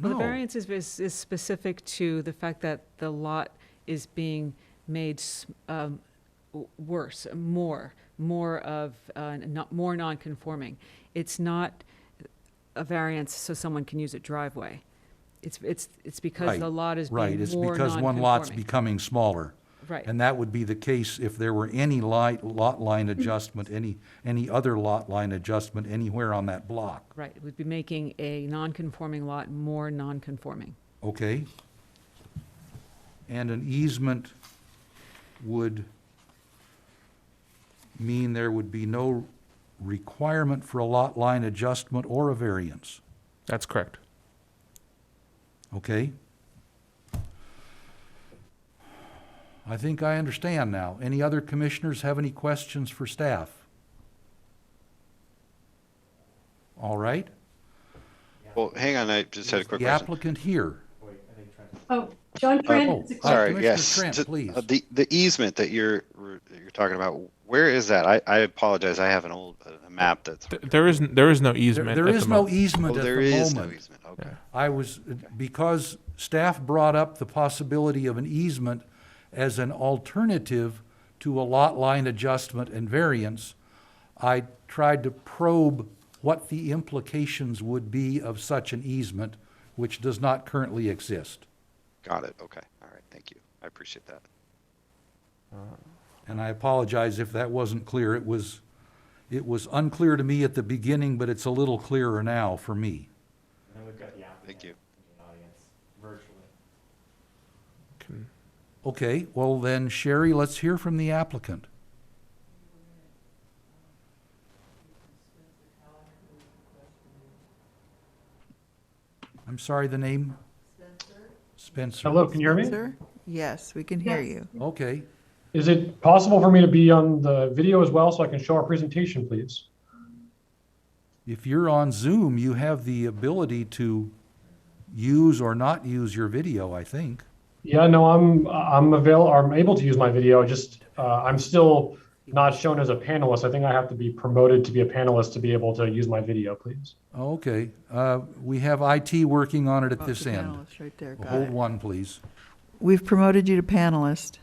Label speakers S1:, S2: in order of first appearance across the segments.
S1: Well, the
S2: No.
S1: variance is, is is specific to the fact that the lot is being made s- um, w- worse, more, more of, uh, not, more non-conforming. It's not a variance so someone can use a driveway. It's, it's, it's because
S2: Right,
S1: the lot is being more
S2: Right, it's
S1: non-conforming.
S2: because one lot's becoming smaller.
S1: Right.
S2: And that would be the case if there were any li- lot
S1: Hmm.
S2: line adjustment, any, any other lot line adjustment anywhere on that block,
S1: Right, it would be making a non-conforming lot more non-conforming.
S2: okay? And an easement would mean there would be no requirement for a lot line adjustment or a variance,
S3: That's correct.
S2: okay? I think I understand now. Any other commissioners have any questions for staff? All right?
S4: Well, hang on, I just had a quick
S2: the
S4: question.
S2: applicant here.
S5: Oh, John
S2: oh,
S5: Trent, it's a
S2: sorry.
S5: question.
S4: Sorry,
S2: Commissioner
S4: yes.
S2: Trent,
S4: T-
S2: please.
S4: uh, The, the easement that you're, that you're talking about, where is that? I, I apologize, I have an old, uh, a map that's,
S3: Th- There is, n- there is no
S2: There-
S3: easement.
S2: There
S3: at
S2: is
S3: the
S2: no e-,
S3: moment.
S4: oh,
S2: easement at
S4: there
S2: the
S4: is no
S2: moment.
S4: easement, okay.
S2: I was, because staff brought up the possibility of an easement as an alternative to a lot line adjustment and variance, I tried to probe what the implications would be of such an easement, which does not currently exist.
S4: Got it, okay, all right, thank you, I appreciate that.
S2: And I apologize if that wasn't clear. It was, it was unclear to me at the beginning, but it's a little clearer now for me.
S6: And then we've got the applicant
S4: Thank you.
S6: in the audience virtually.
S3: Can-
S2: Okay, well then, Sherry, let's hear from the applicant. I'm sorry, the name? Spencer.
S7: Hello, can you hear me?
S8: Spencer? Yes, we can hear you.
S2: Okay,
S7: Is it possible for me to be on the video as well so I can show our presentation, please?
S2: if you're on Zoom, you have the ability to use or not use your video, I think.
S7: Yeah, no, I'm, I'm avail, I'm able to use my video, just, uh, I'm still not shown as a panelist. I think I have to be promoted to be a panelist to be able to use my video, please.
S2: Okay, uh, we have IT working on it at
S8: Oh,
S2: this
S8: the
S2: end.
S8: panelist Right there, got
S2: Hold
S8: it.
S2: one, please.
S8: We've promoted you to panelist.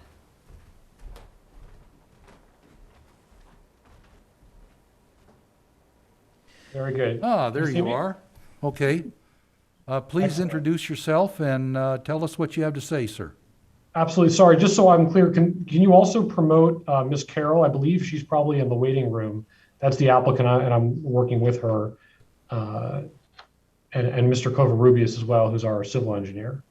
S7: Very good.
S2: Ah, there
S7: see
S2: you
S7: me?
S2: are. Okay. Uh, Please
S7: Excellent.
S2: introduce yourself and uh, tell us what you have to say, sir.
S7: Absolutely. Sorry, just so I'm clear, can, can you also promote, uh, Ms. Carroll? I believe she's probably in the waiting room. That's the applicant I- and I'm working with her. Uh, and, and Mr. Covarrubias as well, who's our civil engineer.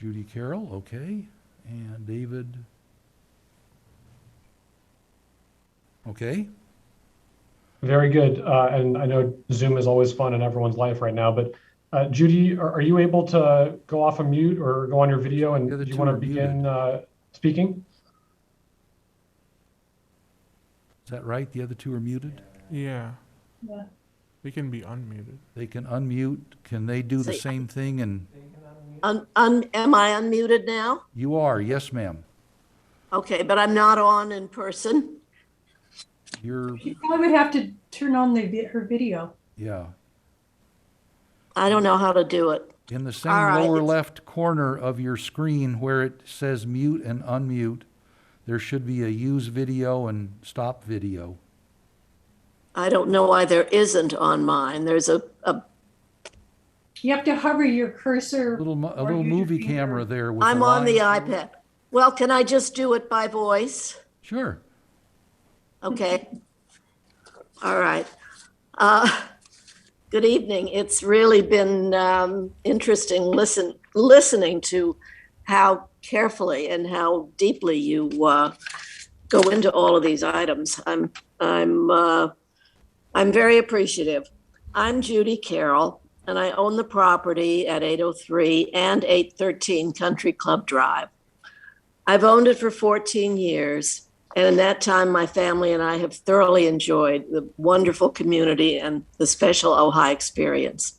S2: Judy Carroll, okay, and David. Okay,
S7: Very good. Uh, and I know Zoom is always fun in everyone's life right now, but uh, Judy, are, are you able to go off a mute or go on your video and
S2: The other
S7: do you
S2: two
S7: want
S2: are
S7: to begin
S2: muted.
S7: uh, speaking?
S2: is that right? The other two are muted?
S3: Yeah,
S5: Yeah.
S3: they can be unmuted.
S2: They can unmute. Can they do the
S9: See.
S2: same thing? And
S9: Un- un- Am I unmuted now?
S2: you are, yes, ma'am.
S9: Okay, but I'm not on in person.
S2: You're,
S5: You probably would have to turn on the, vi- her video.
S2: yeah.
S9: I don't know how to do it.
S2: In the same
S9: All right,
S2: lower
S9: it's-
S2: left corner of your screen where it says mute and unmute, there should be a use video and stop video.
S9: I don't know why there isn't on mine. There's a, a,
S5: You have to hover your cursor.
S2: Little, mo- a
S5: or
S2: little
S5: use your
S2: movie
S5: finger.
S2: camera there with.
S9: I'm on the
S2: line through it.
S9: iPad. Well, can I just do it by voice?
S2: Sure.
S9: Okay. All right. Uh, Good evening. It's really been um, interesting listen, listening to how carefully and how deeply you uh, go into all of these items. I'm I'm uh, I'm very appreciative. I'm Judy Carroll, and I own the property at 803 and 813 Country Club Drive. I've owned it for 14 years, and in that time, my family and I have thoroughly enjoyed the wonderful community and the special Ojai experience.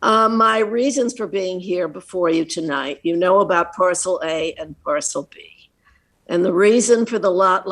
S9: Uh, my reasons for being here before you tonight, you know about parcel A and parcel B. And the reason for the lot